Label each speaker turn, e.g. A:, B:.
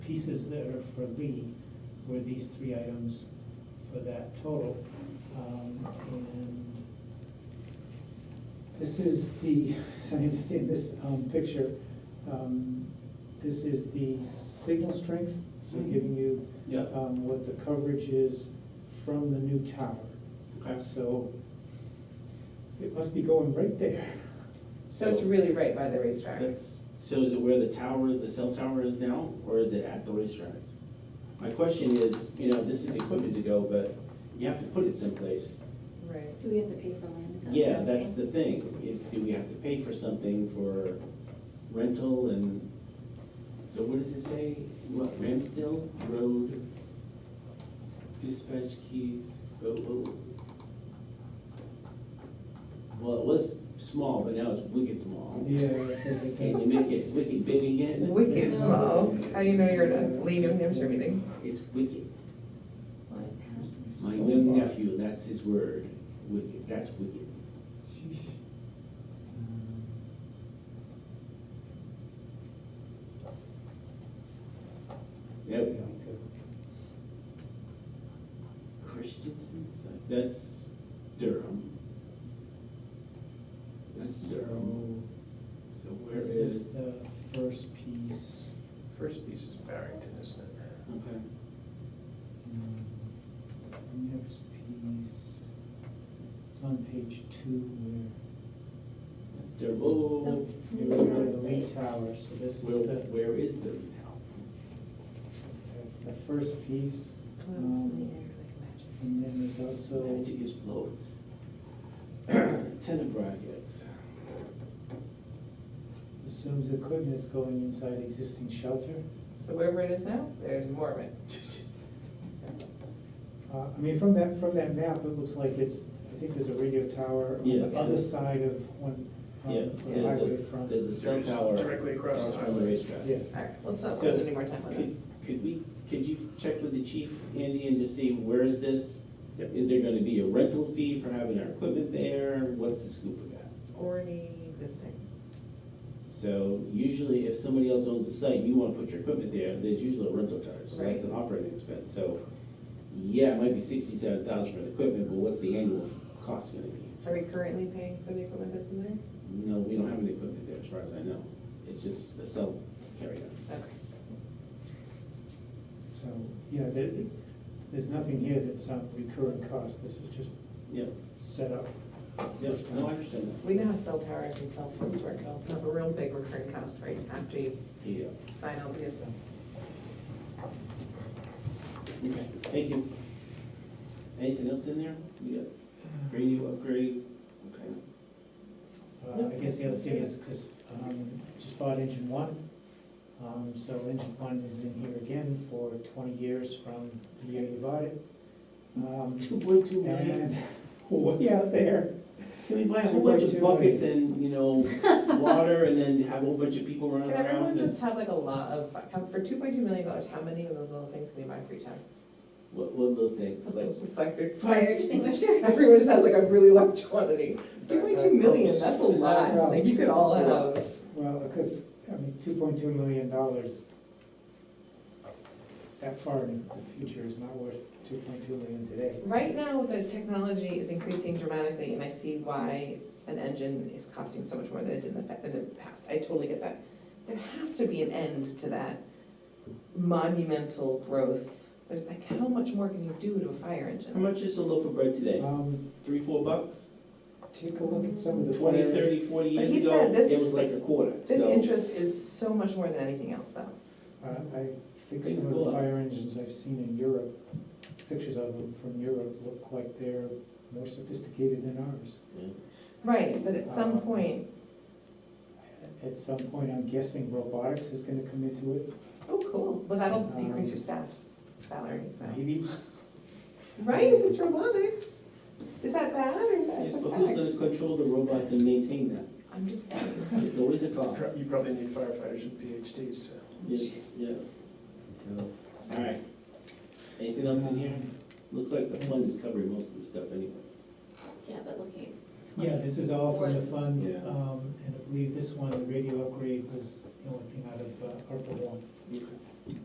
A: pieces that are for Lee were these three items for that total. Um, And this is the, so I understand this um, picture, um, this is the signal strength, so giving you
B: Mm-hmm. Yeah.
A: um, what the coverage is from the new tower.
B: Okay.
A: So it must be going right there.
C: So it's really right by the racetrack.
B: That's, so is it where the tower is, the cell tower is now, or is it at the racetrack? My question is, you know, this is equipment to go, but you have to put it someplace.
C: Right.
D: Do we have to pay for land? Is that what
B: Yeah,
D: you're
B: that's
D: saying?
B: the thing. If, do we have to pay for something for rental and, so what does it say? What, Ramsdale Road dispatch keys, oh, oh. Well, it was small, but now it's wicked small.
A: Yeah. that's it.
B: Can you make it wicked big again?
C: Wicked small. How do you know you're at a Lee New Hampshire meeting?
B: It's wicked.
D: What?
B: My young nephew, that's his word, wicked, that's wicked.
A: Sheesh. Um,
B: There
A: yeah,
B: we go.
A: good.
B: Christensen, that's Durham. That's
A: So
B: Durham. So where
A: this
B: is?
A: is the first piece.
E: First piece is Barrington, isn't it?
B: Okay.
A: Um, Next piece, it's on page two
B: That's Durham. Oh,
A: where, here's where the lee tower, so this is
B: where,
A: the,
B: Oh, where is the town?
A: that's the first piece. Um, And then there's also,
B: Magic explodes. Tenant brackets.
A: assumes equipment is going inside existing shelter.
C: So wherever it is now, there's more of it.
A: Uh, I mean, from that, from that map, it looks like it's, I think there's a radio tower on the
B: Yeah.
A: other side of one, um,
B: Yeah,
A: the
B: there's
A: highway
B: a,
A: front.
B: there's a cell tower.
E: Directly across the
B: From the
E: highway.
B: racetrack.
A: Yeah,
C: All right, let's not
B: So-
C: spend any more time on
B: Could,
C: that.
B: could we, could you check with the chief, Andy, and just see where is this?
E: Yep.
B: Is there gonna be a rental fee for having our equipment there? What's the scoop of that?
C: It's already existing.
B: So usually if somebody else owns the site, you wanna put your equipment there, there's usually a rental charge, so that's an operating expense, so. Yeah, it might be sixty-seven thousand for the equipment, but what's the annual cost gonna be?
C: Are we currently paying for the equipment that's in there?
B: No, we don't have any equipment there, as far as I know, it's just the cell carrier.
C: Okay.
A: so, yeah, there, there's nothing here that's on recurring cost, this is just
B: Yeah,
A: set up.
B: yeah, no, I understand that.
C: We know how cell towers and cell phones work. It'll have a real big recurring cost right after you
B: Yeah,
C: sign all these.
B: okay, thank you. Anything else in there? We got radio upgrade, okay.
A: Uh, I guess the other thing is, because, um, just bought engine one, um, so engine one is in here again for twenty years from the year you bought it. Um,
B: Two point two
A: and, way out there,
B: Can we buy a whole bunch of
A: 2.2
B: buckets and, you know, water and then have a whole bunch of people running
C: Can
B: around?
C: everyone
B: and-
C: just have like a lot of, how- for two point two million dollars, how many of those little things can you buy for your town?
B: What, what little things, like,
C: Fire.
D: Fire extinguisher?
C: Everyone just has like a really large quantity. Two point two million, that's a lot. Like you could all have.
A: Well, because, I mean, two point two million dollars, that far in the future is not worth two point two million today.
C: Right now, the technology is increasing dramatically and I see why an engine is costing so much more than it did in the, fa- in the past. I totally get that. There has to be an end to that monumental growth. There's like, how much more can you do to a fire
B: how
C: engine?
B: much is a loaf of bread today?
A: Um,
B: Three, four bucks?
A: take a look at some of the.
B: Twenty,
A: fire-
B: thirty, forty
C: But
B: years
C: he
B: ago,
C: said this
B: it was
C: is-
B: like a quarter,
C: This
B: so-
C: interest is so much more than anything else though.
A: Uh, I think
B: Things
A: some of
B: go
A: the
B: up.
A: fire engines I've seen in Europe, pictures of them from Europe look like they're more sophisticated than ours.
B: Yeah.
C: Right, but at some point,
A: At some point, I'm guessing robotics is gonna come into it,
C: oh, cool, well, that'll
A: Um,
C: decrease your staff salary, so.
A: maybe.
C: Right, if it's robotics, is that bad or is
B: Yes,
C: that
B: but who's
C: a
B: gonna
C: fact?
B: control the robots and maintain them?
C: I'm just saying.
B: It's always a
E: You pro-
B: cost.
E: You probably need firefighters with PhDs to.
B: Yes, yeah. So, all right. Anything else in here? Looks like the fund is covering most of the stuff anyways.
D: Yeah, but looking,
A: Yeah, this is all from the fund,
B: Yeah.
A: um, and I believe this one, the radio upgrade was the only thing out of uh, ARPA one.
B: Okay.